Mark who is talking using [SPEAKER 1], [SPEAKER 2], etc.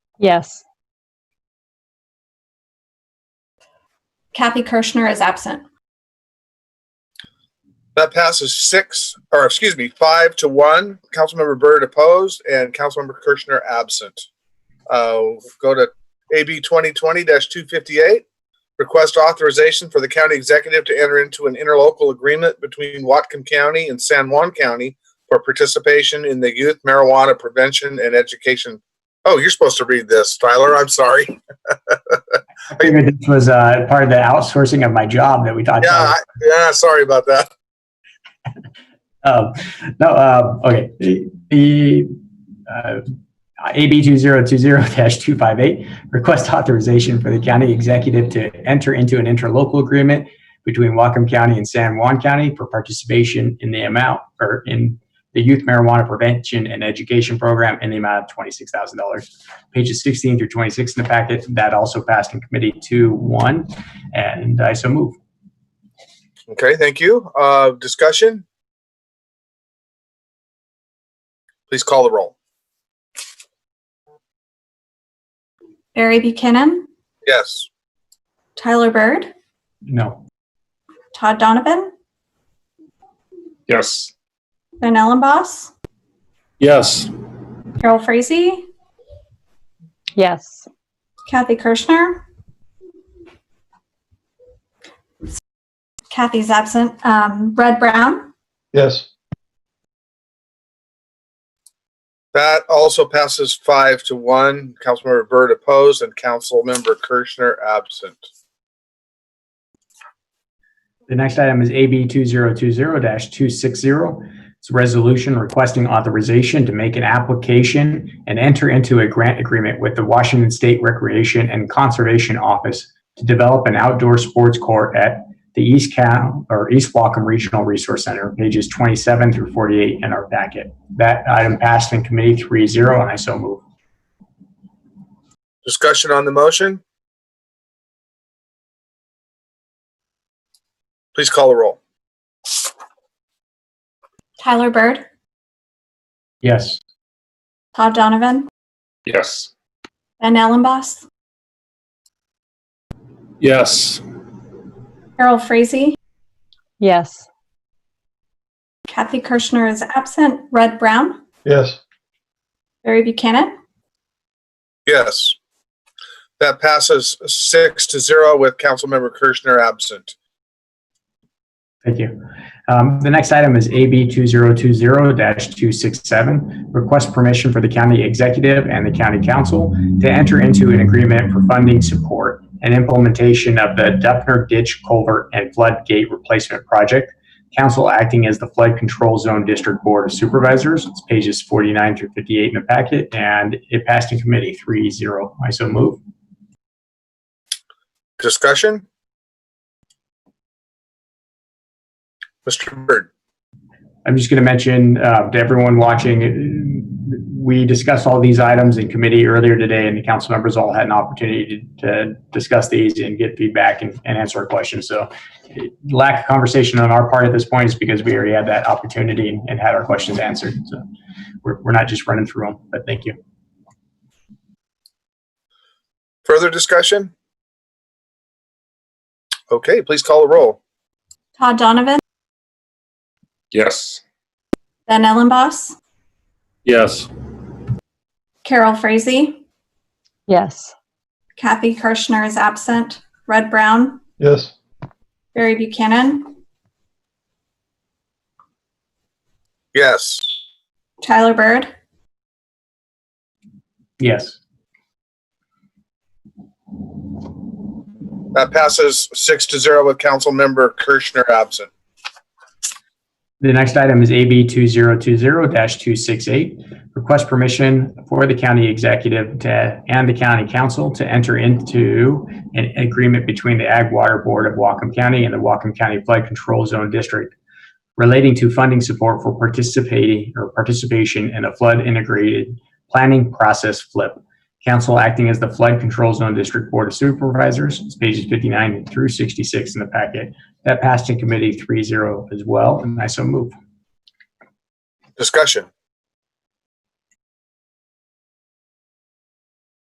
[SPEAKER 1] Yes.
[SPEAKER 2] Kathy Kirschner is absent.
[SPEAKER 3] That passes six, or excuse me, five to one. Councilmember Byrd opposed and Councilmember Kirchner absent. Uh, go to AB twenty twenty two fifty-eight. Request authorization for the county executive to enter into an interlocal agreement between Watcom County and San Juan County for participation in the youth marijuana prevention and education. Oh, you're supposed to read this, Tyler. I'm sorry.
[SPEAKER 4] figured this was uh, part of the outsourcing of my job that we talked
[SPEAKER 3] Yeah, I- yeah, sorry about that.
[SPEAKER 4] about. Um, no, um, okay. The- The uh, AB 2020-258 request authorization for the county executive to enter into an interlocal agreement between Whatcom County and San Juan County for participation in the amount or in the youth marijuana prevention and education program in the amount of $26,000. Pages 16 through 26 in the packet. That also passed in committee 2-1, and I so move.
[SPEAKER 3] Okay, thank you. Uh, discussion? Please call the roll.
[SPEAKER 2] Barry Buchanan,
[SPEAKER 3] Yes.
[SPEAKER 2] Tyler Bird,
[SPEAKER 4] No.
[SPEAKER 2] Todd Donovan,
[SPEAKER 5] Yes.
[SPEAKER 2] Ben Ellenboss,
[SPEAKER 5] Yes.
[SPEAKER 2] Carol Frazee,
[SPEAKER 1] Yes.
[SPEAKER 2] Kathy Kirschner. Kathy's absent. Um, Red Brown,
[SPEAKER 5] Yes.
[SPEAKER 3] That also passes five to one. Councilmember Byrd opposed and Councilmember Kirschner absent.
[SPEAKER 4] The next item is AB 2020-260. It's a resolution requesting authorization to make an application and enter into a grant agreement with the Washington State Recreation and Conservation Office to develop an outdoor sports court at the East Cal, or East Wacom Regional Resource Center, pages 27 through 48 in our packet. That item passed in committee 3-0, and I so move.
[SPEAKER 3] Discussion on the motion? Please call the roll.
[SPEAKER 2] Tyler Bird,
[SPEAKER 4] Yes.
[SPEAKER 2] Todd Donovan,
[SPEAKER 5] Yes.
[SPEAKER 2] Ben Ellenboss,
[SPEAKER 5] Yes.
[SPEAKER 2] Carol Frazee,
[SPEAKER 1] Yes.
[SPEAKER 2] Kathy Kirschner is absent. Red Brown,
[SPEAKER 5] Yes.
[SPEAKER 2] Barry Buchanan,
[SPEAKER 3] Yes. That passes six to zero with Councilmember Kirschner absent.
[SPEAKER 4] Thank you. Um, The next item is AB 2020-267, request permission for the county executive and the county council to enter into an agreement for funding support and implementation of the Duffner Ditch Culvert and Floodgate Replacement Project, council acting as the Flood Control Zone District Board of Supervisors. It's pages 49 through 58 in the packet, and it passed in committee 3-0. I so move.
[SPEAKER 3] Discussion? Mr. Byrd?
[SPEAKER 4] I'm just going to mention uh, to everyone watching, uh, we discussed all these items in committee earlier today, and the council members all had an opportunity to, to discuss these and get feedback and, and answer our questions. So, uh, lack of conversation on our part at this point is because we already had that opportunity and had our questions answered. So, we're, we're not just running through them, but thank you.
[SPEAKER 3] Further discussion? Okay, please call the roll.
[SPEAKER 2] Todd Donovan,
[SPEAKER 5] Yes.
[SPEAKER 2] Ben Ellenboss,
[SPEAKER 5] Yes.
[SPEAKER 2] Carol Frazee,
[SPEAKER 1] Yes.
[SPEAKER 2] Kathy Kirschner is absent. Red Brown,
[SPEAKER 5] Yes.
[SPEAKER 2] Barry Buchanan,
[SPEAKER 3] Yes.
[SPEAKER 2] Tyler Bird,
[SPEAKER 4] Yes.
[SPEAKER 3] That passes six to zero with Councilmember Kirschner absent.
[SPEAKER 4] The next item is AB 2020-268, request permission for the county executive to, and the county council to enter into an agreement between the Ag Water Board of Whatcom County and the Whatcom County Flood Control Zone District relating to funding support for participating or participation in a flood integrated planning process flip. Council acting as the Flood Control Zone District Board of Supervisors, It's pages 59 through 66 in the packet. That passed in committee 3-0 as well, and I so move.
[SPEAKER 3] Discussion?